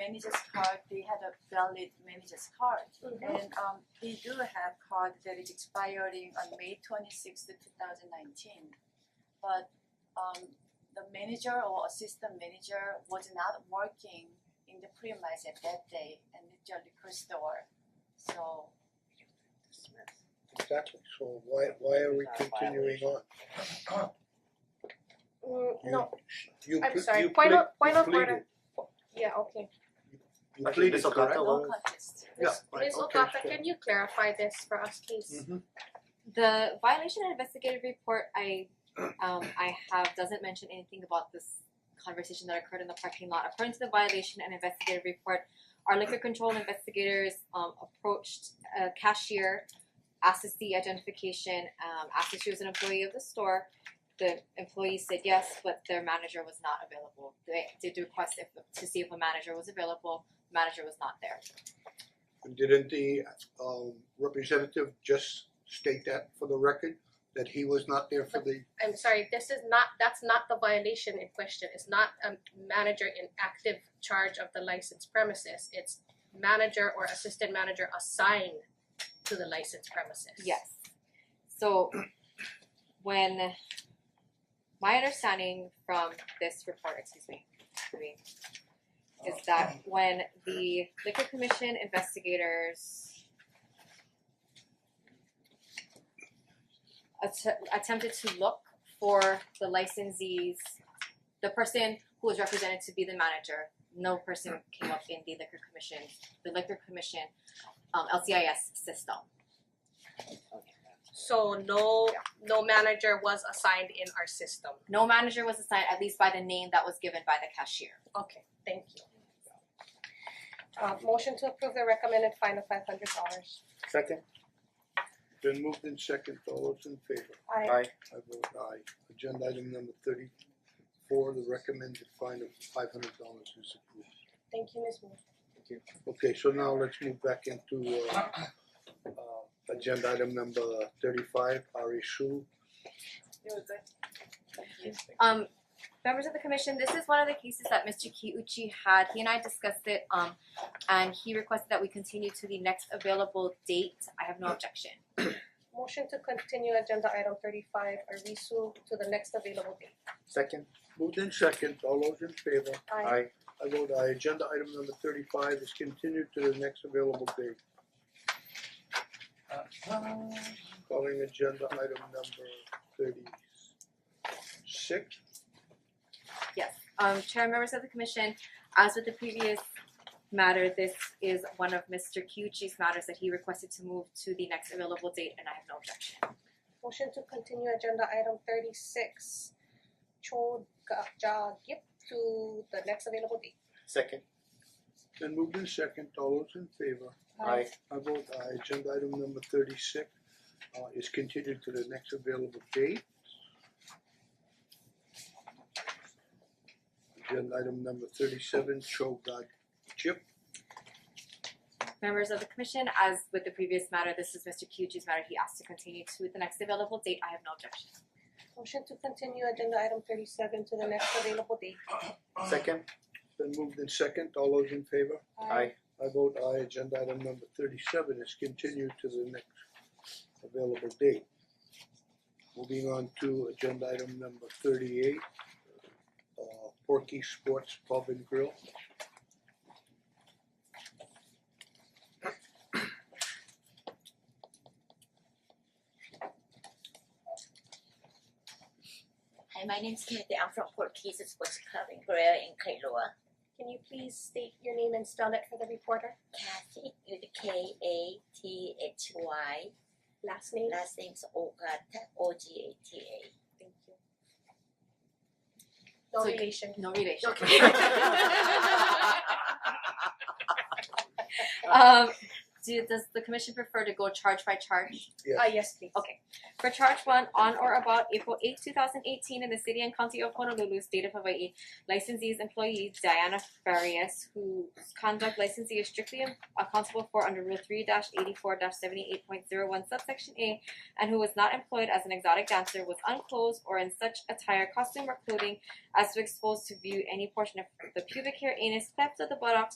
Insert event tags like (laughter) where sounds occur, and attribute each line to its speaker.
Speaker 1: manager's card, they had a valid manager's card.
Speaker 2: Mm-hmm.
Speaker 1: And um they do have card that is expiring on May twenty sixth, two thousand nineteen. But um the manager or assistant manager was not working in the premise at that day and it's a liquor store. So
Speaker 3: Exactly, so why why are we
Speaker 4: Not a
Speaker 3: continuing on?
Speaker 4: (clears throat)
Speaker 2: Mm,
Speaker 3: You-
Speaker 2: no,
Speaker 3: You
Speaker 2: I'm
Speaker 3: ple-
Speaker 2: sorry,
Speaker 3: you
Speaker 2: point
Speaker 3: ple-
Speaker 2: of, point
Speaker 3: you
Speaker 2: of order,
Speaker 3: pleaded-
Speaker 2: yeah, okay.
Speaker 3: you
Speaker 5: Actually,
Speaker 3: pleaded,
Speaker 5: this is not
Speaker 3: correct?
Speaker 5: the
Speaker 1: no
Speaker 5: Well-
Speaker 1: contest.
Speaker 3: Yeah,
Speaker 2: Ms.
Speaker 3: right,
Speaker 2: Ms.
Speaker 3: okay,
Speaker 2: Ogata,
Speaker 3: so-
Speaker 2: can you clarify this for us, please?
Speaker 3: Mhm.
Speaker 6: The violation and investigative report I um, I have doesn't mention anything about this conversation that occurred in the parking lot. According to the violation and investigative report, our liquor control investigators um, approached a cashier, asked to see identification, um, asked if she was an employee of the store. The employee said yes, but their manager was not available. They did request if, to see if a manager was available. Manager was not there.
Speaker 3: And didn't the um representative just state that for the record, that he was not there for the,
Speaker 2: I'm sorry, this is not, that's not the violation in question, it's not a manager in active charge of the licensed premises, it's manager or assistant manager assigned to the licensed premises.
Speaker 6: Yes. So when my understanding from this report, excuse me, I mean, is that when the liquor commission investigators att- attempted to look for the licensees, the person who was represented to be the manager, no person came up in the liquor commission, the liquor commission, um, LCIS system.
Speaker 2: So no, no manager was assigned in our system.
Speaker 6: No manager was assigned, at least by the name that was given by the cashier.
Speaker 2: Okay, thank you. Uh motion to approve the recommended fine of five hundred dollars.
Speaker 5: Second,
Speaker 3: then moved in second, all those in favor?
Speaker 2: I
Speaker 5: aye,
Speaker 3: I vote aye. Agenda item number thirty four, the recommended fine of five hundred dollars is approved.
Speaker 2: thank you, Ms. Wu.
Speaker 3: Okay, so now let's move back into uh uh agenda item number thirty five, Ari Shu.
Speaker 1: You were good. Thank you.
Speaker 6: Um, members of the commission, this is one of the cases that Mr. Kiuchi had. He and I discussed it, um, and he requested that we continue to the next available date. I have no objection.
Speaker 2: Motion to continue agenda item thirty five, Arisu, to the next available date.
Speaker 5: second,
Speaker 3: Moved in second, all those in favor?
Speaker 2: I
Speaker 5: aye,
Speaker 3: I vote aye, agenda item number thirty-five is continued to the next available date. Calling agenda item number thirty-six.
Speaker 6: Yes, um, Chair and members of the commission, as with the previous matter, this is one of Mr. Kiuchi's matters that he requested to move to the next available date, and I have no objection.
Speaker 2: motion to continue agenda item thirty six, Cho Ga Ja Gip to the next available date.
Speaker 5: second,
Speaker 3: Then moved in second, all those in favor?
Speaker 5: aye,
Speaker 3: I vote aye, agenda item number thirty-six uh is continued to the next available date. Agenda item number thirty-seven, Cho Gad Chip,
Speaker 6: Members of the commission, as with the previous matter, this is Mr. Kiuchi's matter. He asked to continue to the next available date. I have no objection.
Speaker 2: Motion to continue agenda item thirty seven to the next available date.
Speaker 5: second,
Speaker 3: then moved in second, all those in favor?
Speaker 5: aye,
Speaker 3: I vote aye, agenda item number thirty-seven is continued to the next available date. Moving on to agenda item number thirty-eight, uh Porky Sports Pub and Grill.
Speaker 7: Hi, my name's Kathy. I'm from Portuguese Sports Club in Korea in Kailua.
Speaker 2: Can you please state your name and spell it for the reporter?
Speaker 7: Kathy with K A T H Y.
Speaker 2: Last name?
Speaker 7: Last name's Ogata, O G A T A.
Speaker 2: Thank you. No
Speaker 6: So-
Speaker 2: relation.
Speaker 6: No relation.
Speaker 2: (laughs) Okay.
Speaker 6: Um, do, does the commission prefer to go charge by charge?
Speaker 3: Yes.
Speaker 2: Uh yes, please.
Speaker 6: Okay. For charge one, on or about April eighth, two thousand eighteen, in the city and county of Honolulu, state of Hawaii, licensee's employee Diana Farias, whose conduct licensee is strictly accountable for under Rule three eighty-four seventy-eight point zero one subsection A, and who was not employed as an exotic dancer with unclothed or in such attire, costume, or clothing as to expose to view any portion of the pubic hair, anus, cleft of the buttocks,